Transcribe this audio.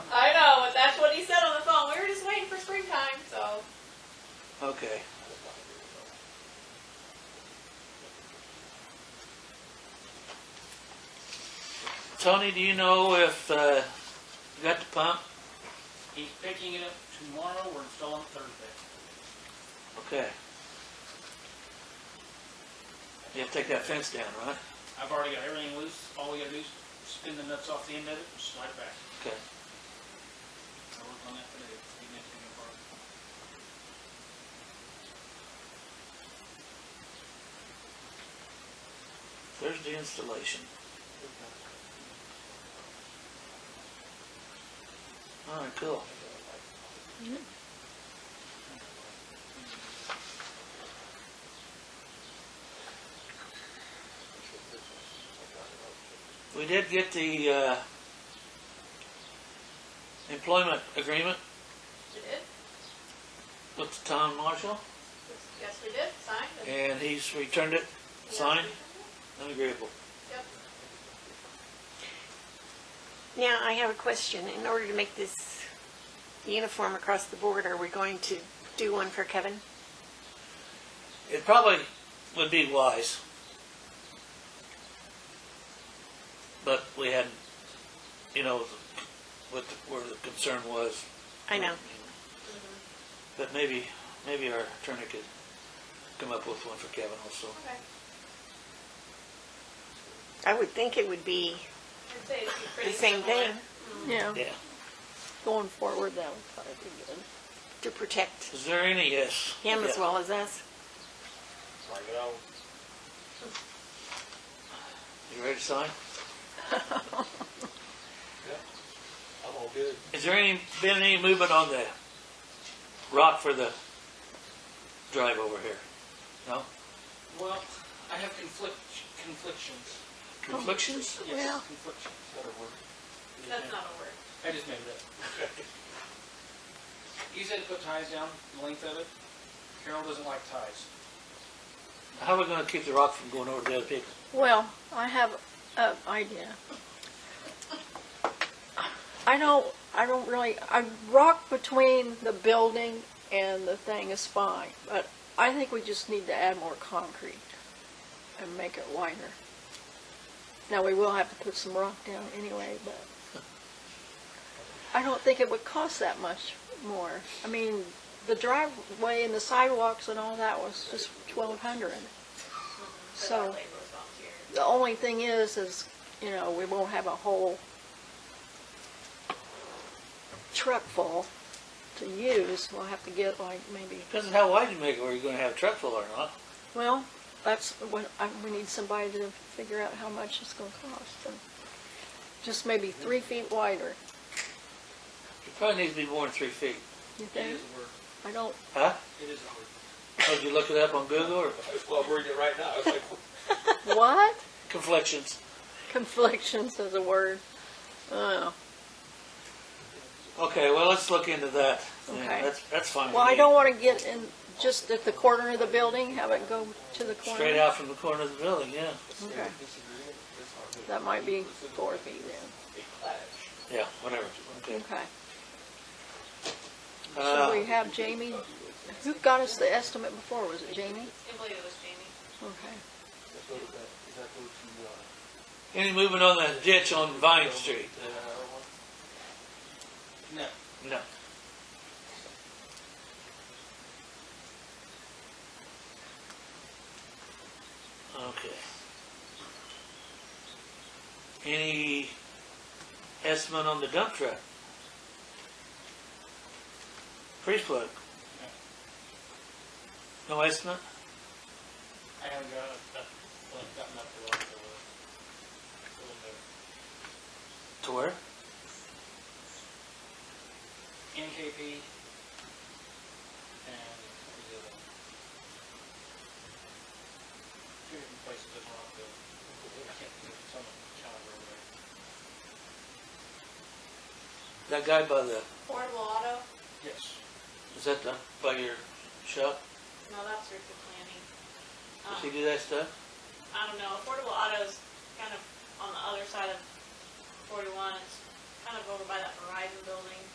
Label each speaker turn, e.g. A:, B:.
A: Okay. Tony, do you know if, uh, you got the pump?
B: He's picking it up tomorrow, we're installing it Thursday.
A: Okay. You have to take that fence down, right?
B: I've already got everything loose, all we gotta do is spin the nuts off the end of it and slide it back.
A: Okay.
B: I worked on that today, getting it to me apart.
A: There's the installation. All right, cool. We did get the, uh, employment agreement
C: You did?
A: with the town marshal,
C: Yes, we did, signed. and-
A: and he's returned it, signed, and agreeable.
C: Yep.
D: Now, I have a question. In order to make this uniform across the board, are we going to do one for Kevin?
A: It probably would be wise. But we had, you know, what, the- where the concern was. Mm-hmm.
D: I know.
A: But maybe, maybe our attorney could come up with one for Kevin also.
C: Okay.
D: I would think it would be
C: I'd say it'd be
D: the
C: pretty
D: same
C: similar.
D: thing
E: Yeah,
A: Yeah.
E: going forward, that would probably be good.
D: to protect
A: Is there any, yes?
D: him as
A: Yeah.
D: well as us.
A: You ready to sign?
F: I'm all good.
A: Is there any, been any movement on the rock for the drive over here? No?
B: Well, I have conflict, conflictions.
A: Conflictions?
B: Yes, confliction.
F: That'll work.
C: That's not a word.
B: I just made it up. You said put ties down, the length of it. Carol doesn't like ties.
A: How are we gonna keep the rock from going over to the other people?
E: Well, I have an idea. I don't, I don't really, I rock between the building and the thing is fine, but I think we just need to add more concrete and make it wider. Now, we will have to put some rock down anyway, but I don't think it would cost that much more. I mean, the driveway and the sidewalks and all that was just twelve hundred.
C: But
E: So.
C: that labor was volunteer.
E: The only thing is, is, you know, we won't have a whole truck full to use. We'll have to get like maybe,
A: Depends on how wide you make it, where you're gonna have a truck full or not.
E: well, that's what, I, we need somebody to figure out how much it's gonna cost. and Just maybe three feet wider,
A: It probably needs to be more than three feet.
E: you
B: It
E: think?
B: is a word.
E: I don't,
A: Huh?
B: It is a word.
A: Oh, did you look it up on Google or
F: Well, I'm reading it right now. It's like,
E: what?
A: conflictions?
E: Conflictions is a word. Oh,
A: Okay, well, let's look into that. Yeah,
E: Okay.
A: That's, that's fine. with
E: well, I
A: me.
E: don't wanna get in, just at the corner of the building, have it go to the corner.
A: Straight out from the corner of the building, yeah.
E: Okay.
F: disagreement, that's not good.
E: That might be four feet then,
F: It clashed.
A: Yeah, whatever. Okay.
E: okay. So
A: Uh,
E: we have Jamie, who got us the estimate before, was it Jamie?
C: I believe it was Jamie.
E: Okay.
F: That goes back, that goes to, uh,
A: any movement on the ditch on Vine Street?
F: uh,
B: No,
A: No. Okay. Any estimate on the dump truck? Freeze plug? No estimate?
B: I haven't got a, a, well, I've gotten up to like a little bit.
A: To where?
B: NKP and what was the other one? Two different places that were on the, I can't think of some of the calendar over there.
A: That guy by the,
C: Portable auto,
B: Yes.
A: is that the, by your shop?
C: no, that's through the planning.
A: Does he
C: Um,
A: do that stuff?
C: I don't know, affordable auto's kind of on the other side of forty-one, it's kind of over by that Verizon building.